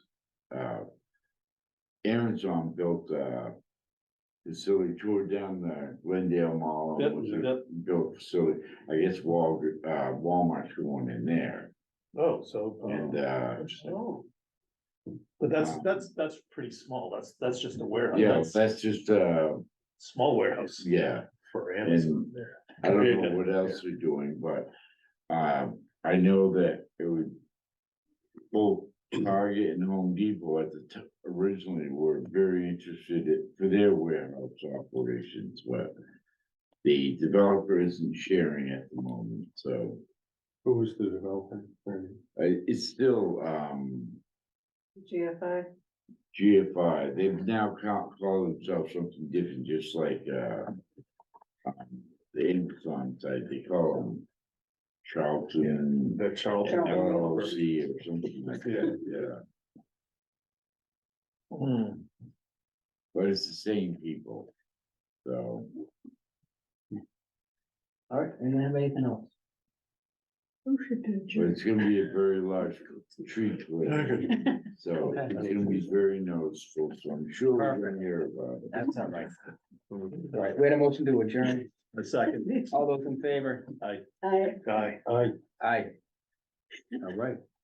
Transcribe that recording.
uh, Aaron John built a facility, tore down the Glendale Mall. and Yep, was a- yep. Built facility, I guess Wal, uh, Walmart's going in there, Oh, so. uh, and, uh, interesting. But that's, that's, that's pretty small. That's, that's just a warehouse. yeah, Oh, That's that's just, uh, Small warehouse yeah. for Amazon there. I don't Creative, know what else they're doing, but, um, I know that it would. Both Target and Home Depot at the t- originally were very interested in, for their warehouse operations, but. The developer isn't sharing at the moment, so, Who was the developer? Ernie? uh, it's still, um, GFI, GFI, they've now call, call themselves something different, just like, uh. um, The Amazon side, they call them Charlton The Charlton. developer. LLC or something like that, yeah, Hmm. but it's the same people. So, All right, anyone have anything else? motion to but adjourn. it's gonna be a very large tree, clearing, so it's gonna be very noticeable, so I'm sure we're gonna hear about it. That's all right. All right, we had a motion to adjourn. A second. All those in favor? I. Guy. I Aye. All right.